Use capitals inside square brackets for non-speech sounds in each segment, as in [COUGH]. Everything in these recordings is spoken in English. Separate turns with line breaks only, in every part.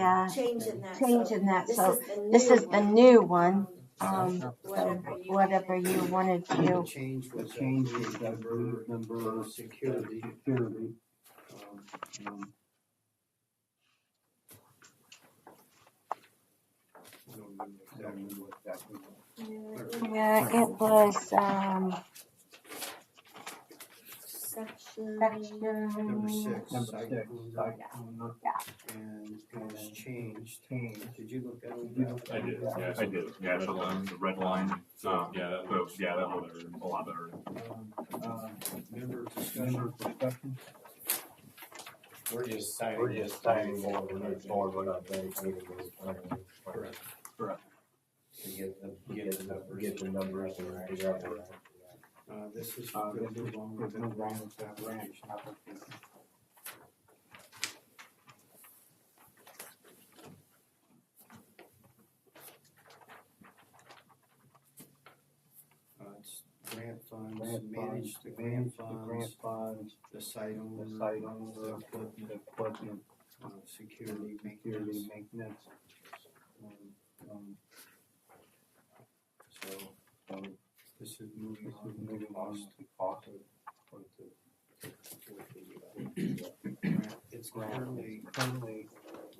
yeah,
change in that.
change
so
in that,
this
so
is the
this
new
is the
one.
new one, um,
Um,
so whatever you wanted
The
to,
change
The
was.
change
uh,
is that group number
uh, Security.
security.
um,
um,
I don't remember
I don't
exactly
know what that was.
Yeah,
yeah, it was, um,
Section.
Number
section.
six.
Number
site
six,
owner,
site owner.
And it was
And-
changed.
Change.
Did you look at it? Um,
Yeah,
I did,
yeah,
yeah, I did, yeah, the line, the red line, um, yeah, that looks, yeah, that looks a lot better.
Um, um,
uh, Member discussion.
Member discussion,
We're just saying. We're just saying what we're moving forward, we're not doing anything.
Correct.
Correct.
To get the, get the, get the numbers and figure out. the-
Uh, this is.
uh,
good.
there's no wrong with that ranch application.
Uh, it's grant funds,
Grant
manage
funds,
the
manage
grant
the grant
funds,
funds,
the site
the
owner. uh,
site
the
owner,
equipment,
the equipment,
uh, Security
security,
maintenance.
maintenance.
um,
um,
So, um,
So
this is
this
moving
is
on.
moving on
Cost.
to cost of, or [CLEARS THROAT] to
with the, uh, grant. It's
grant.
currently
Currently,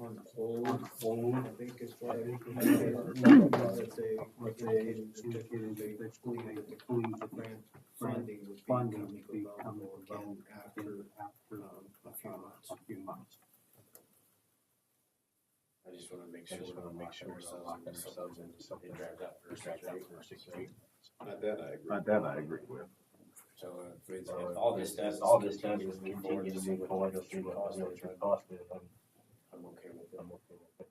on hold,
hold
I think it's what it is.
I think it's
That they,
what they
indicated that
indicated
they
they
believe that the
believe that
grant funding would be
funding
coming
would be coming
available again after,
after
um, a few months.
a few months.
I just wanna make
I
sure,
just
we're
wanna
not
make sure
locking ourselves in ourselves into something dragged out for six or eight months.
That I agree.
that I agree with.
So, uh, if it's- if all this does. is
all this does
continue
is
to move forward
continue
to
to
see
move
what
forward
the
to see
future
what
costs
the
are,
future cost is. I'm,
I'm okay with it.
I'm okay with it.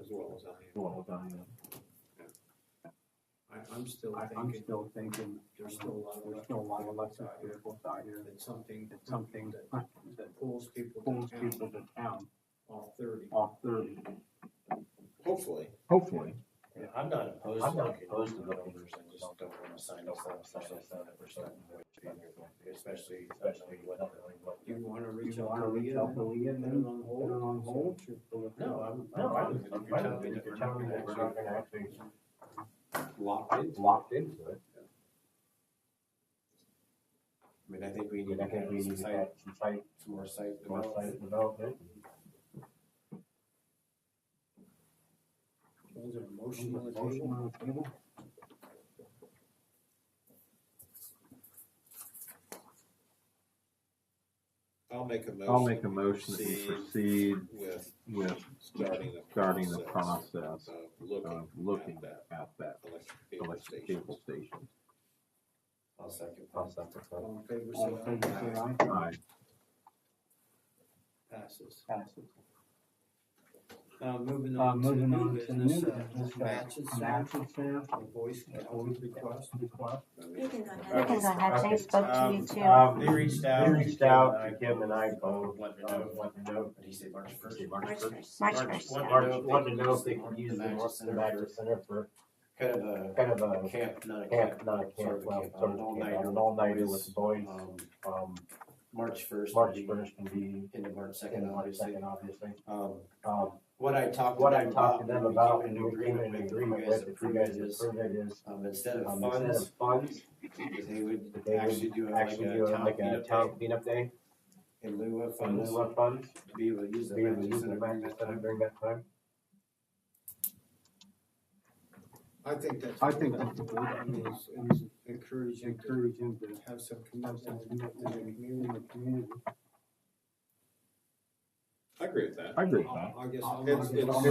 as well as I am.
Well, I am.
I, I'm still
I, I'm
thinking,
still thinking,
there's still a lot of.
there's still a lot of electric
out here.
vehicles out here,
It's something
it's something
that
that, that
that pulls people
pulls
to town,
people to town
all thirty.
off thirty.
Hopefully.
Hopefully.
Yeah, I'm not opposed.
I'm
to
not
looking
opposed to
at
looking
numbers,
at
I just don't wanna sign up for something for something which- Especially,
Especially
especially
what,
what.
what
You wanna reach
You
out
wanna
to
reach
Leah,
out to Leah
put it
and
on
put
hold?
it on hold?
No, I'm.
No,
fine
I'm,
with it.
I'm
If you're
fine
telling
with
me
it.
that
If you're
we're not
telling me
gonna
that we're
actually
not gonna actually
Locked in.
locked into it,
I mean, I think we need
then
to
I think we
have some
need to
site,
have some site,
some more site
more
development.
site development.
Is there a motion on the
Motion
table?
on the table?
I'll make a motion.
I'll make a motion that we
Proceed
proceed
With
with
starting the.
starting the
process
process
Of
of
looking.
looking
at that
at that
electric vehicle
electric
station.
cable station.
I'll second.
I'll second that.
All in favor,
All in
say
favor, say aye.
I
aye. Passes.
Passes.
Uh, moving
Uh,
on to
moving
new
on to new
business,
business,
uh, matches,
matches, matches, sir.
a voice county request.
You can go ahead.
You can go ahead, they spoke to you too.
Um,
They reached out.
I reached out to
Kim
Kim and I, both,
Let me
uh,
know,
what to know,
did he say March first?
March
March
first.
first.
March
March
first,
one.
yeah.
Mark wanted to know if they could use the North Magic Center for
Kind of a
kind of a
camp, not a camp.
camp, not a
Sort
camp,
of a
well,
camp,
sort of
an
a
all-nighter
camp,
with
an all-nighter
boys.
with the boys.
Um,
Um,
March first.
March first can be,
Into March second,
and March
obviously.
second, obviously.
Um,
Um,
what I talked. to
what I
them
talked to them about,
and
and
we
we
came
came
to
in
an
agreement with, if you guys
is,
approve it, is
um, instead of
um, instead
funds,
of funds,
that they would
that they
actually do a-
would
like
actually do
a
a-
town
like a
meetup
town
day
cleanup day,
in lieu of
and
funds,
lieu of funds,
be able to use the
be able to
matches
use the
and
Magic
everything.
Center during that time.
I think that's.
I think that's a good
I
idea.
mean, it's- it's Encouraging to
Encourage him to
have some
have some
commitment in
commitment
the
in
community.
the community.
I agree with that.
I agree with that.
I guess. I'll-
It's- it's-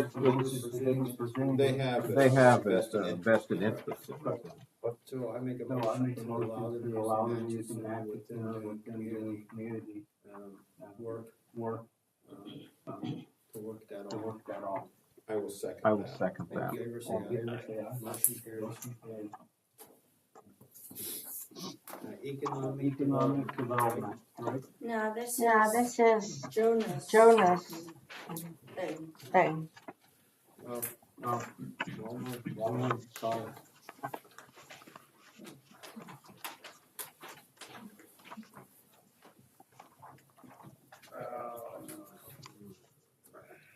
it's- They have.
They have a
vested
a
interest.
vested interest in it.
So I make a
So I
motion
make a
to allow
motion
them
to
to
allow them
matches
using that
within um,
within the
the community,
community,
um,
uh,
work,
work,
um,
um,
to work that
to
off.
work that off.
I will second
I will
that.
second
All
that.
in favor, say
All in
aye.
favor, say aye.
Motion carries.
Motion carries.
Uh, Economic.
Economic development, right?
No, this is.
Now, this is
Jonas.
Jonas
Thing.
thing.
Uh,
Uh,
Walmart,
Walmart, Dollar,